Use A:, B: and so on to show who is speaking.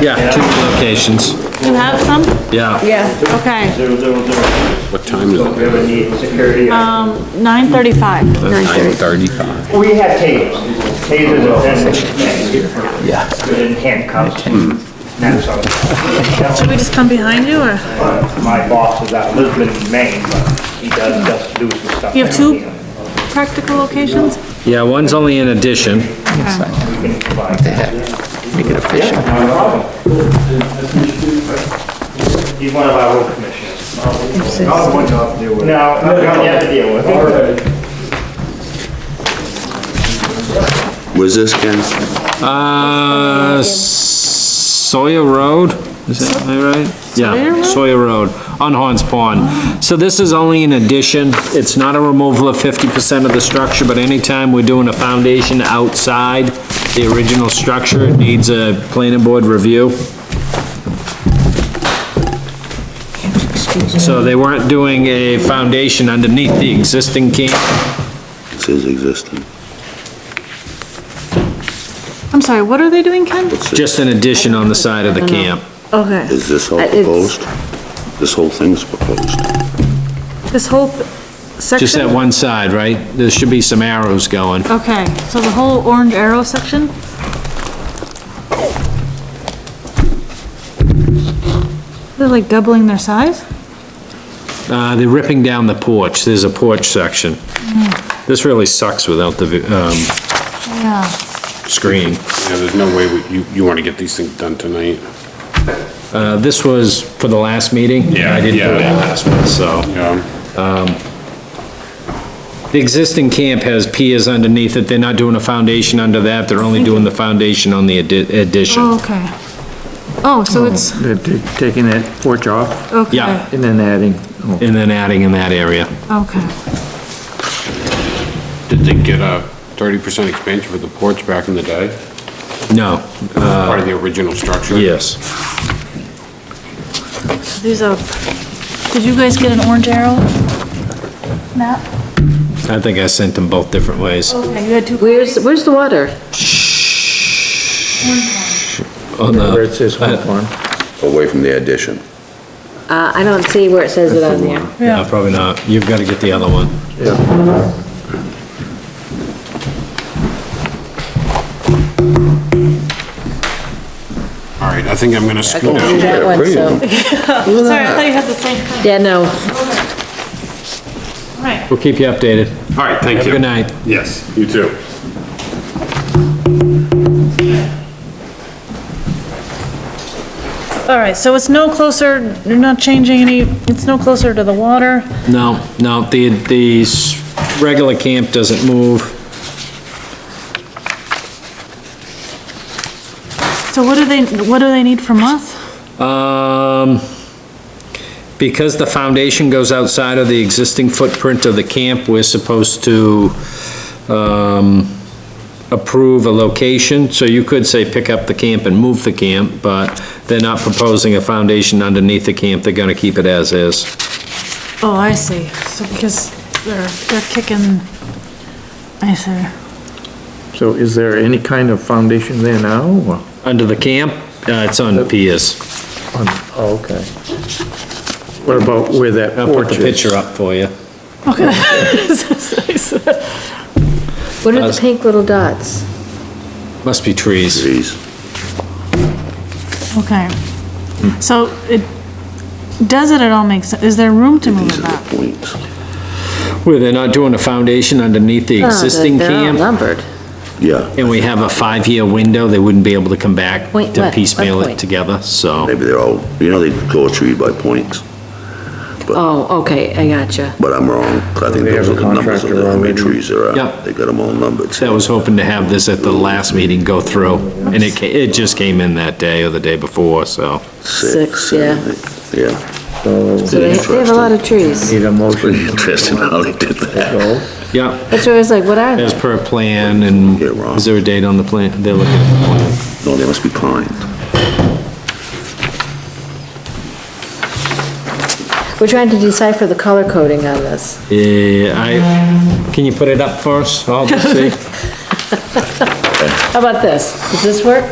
A: Yeah, two locations.
B: You have some?
A: Yeah.
C: Yeah,
B: Okay,
D: Zero, zero, zero.
A: What time is
D: We have a need security.
B: Um, nine thirty-five.
C: nine thirty.
A: Thirty-five.
D: We have tasers. Tasers are designated.
A: Yeah.
D: Good in handcuffs. That's all. Hmm.
B: Should we just come behind you, uh, or?
D: My boss is out of Lisbon, Maine, but he does just do some stuff.
B: You have two
D: down here.
B: practical locations?
A: Yeah, one's only in addition.
D: We can provide.
C: Make it official.
D: No problem. He's one of our road commissioners.
C: Says-
D: one job to deal with. No, not yet to deal with.
E: Was this Ken?
A: Uh, Sawyer Road, is that am I right?
B: Sawyer
A: Yeah,
B: Road?
A: Sawyer Road, on Horns Pond. So this is only an addition, it's not a removal of fifty percent of the structure, but anytime we're doing a foundation outside the original structure, it needs a planning board review. So they weren't doing a foundation underneath the existing camp,
E: This is existing.
B: I'm sorry, what are they doing, Ken?
A: just an addition on the side of the camp.
B: Okay,
E: Is this all
C: Uh, it's-
E: proposed? This whole thing's proposed.
B: this whole th- section?
A: Just that one side, right? There should be some arrows going.
B: Okay, so the whole orange arrow section? They're like doubling their size?
A: Uh, they're ripping down the porch, there's a porch section. This really sucks without the, vi- um,
B: Yeah.
A: screen.
F: Yeah, there's no way we- you, you want to get these things done tonight.
A: Uh, this was for the last meeting?
F: Yeah,
A: I didn't do
F: yeah.
A: that last one, so.
F: Yeah,
A: The existing camp has piers underneath it, they're not doing a foundation under that, they're only doing the foundation on the addi- addition.
B: Okay. Oh, so it's,
G: They're t- taking that porch off
B: okay.
A: Yeah.
G: and then adding, oh,
A: And then adding in that area.
B: Okay.
F: did they get a thirty percent expansion for the porch back in the day?
A: No,
F: Part of the original structure?
A: yes.
B: These are, did you guys get an orange arrow map?
A: I think I sent them both different ways.
B: Okay, you had two.
C: Where's, where's the water?
A: On
G: where
A: the,
G: it says home farm.
E: Away from the addition.
C: Uh, I don't see where it says it on there.
A: no, Uh, probably not, you've gotta get the other one.
F: All right, I think I'm gonna scoot
C: Do
F: out.
C: That one, so,
B: Sorry, I thought you had the same thing.
C: yeah, no,
B: Right.
A: We'll keep you updated.
F: All right, thank
A: Have a
F: you.
A: good night.
F: Yes, you too.
B: All right, so it's no closer, you're not changing any, it's no closer to the water.
A: No, no, the, the s- regular camp doesn't move.
B: So what do they, what do they need from us?
A: Um, because the foundation goes outside of the existing footprint of the camp, we're supposed to, um, approve a location, so you could say pick up the camp and move the camp, but they're not proposing a foundation underneath the camp, they're gonna keep it as is.
B: Oh, I see. So because they're, they're kicking, I see.
G: So is there any kind of foundation there now? or
A: Under the camp, uh, it's on piers.
G: on- oh, Okay. What about where that
A: I'll put
G: porch
A: the
G: is?
A: picture up for you.
C: what are the pink little dots?
A: Must be trees.
E: Trees.
B: Okay. So it, does it at all make sense? Is there room to move
E: These
B: it
E: are the
B: back?
E: points.
A: Where they're not doing a foundation underneath the
C: Oh,
A: existing
C: they're- They're all
A: camp,
C: numbered.
E: Yeah,
A: and we have a five-year window, they wouldn't be able to come back
C: Point
A: to
C: what?
A: piecemeal
C: What
A: it
C: point?
A: together, so.
E: maybe they're all, you know, they go tree by points,
C: Oh, okay, I gotcha.
E: but I'm wrong. I think
G: They have
E: those
G: a
E: are the numbers of
G: contractor
E: how many
G: already.
E: trees there are.
A: Yeah.
E: They got them all numbered.
A: I was hoping to have this at the last meeting go through, and it, ca- it just came in that day or the day before, so.
C: Six, yeah.
E: seven, eight. Yeah,
C: So they they have a lot of trees.
G: Need a motion
E: pretty interesting how they did that.
G: though.
A: Yeah,
C: That's why I was like, what are
A: as
C: they?
A: per plan, and
E: You're wrong.
A: is there a date on the plan? They're looking at the plan.
E: No, they must be pine.
C: We're trying to decipher the color coding on this.
A: Eh, Yeah, I, can you put it up for us, all to see?
C: How about this? Does this work?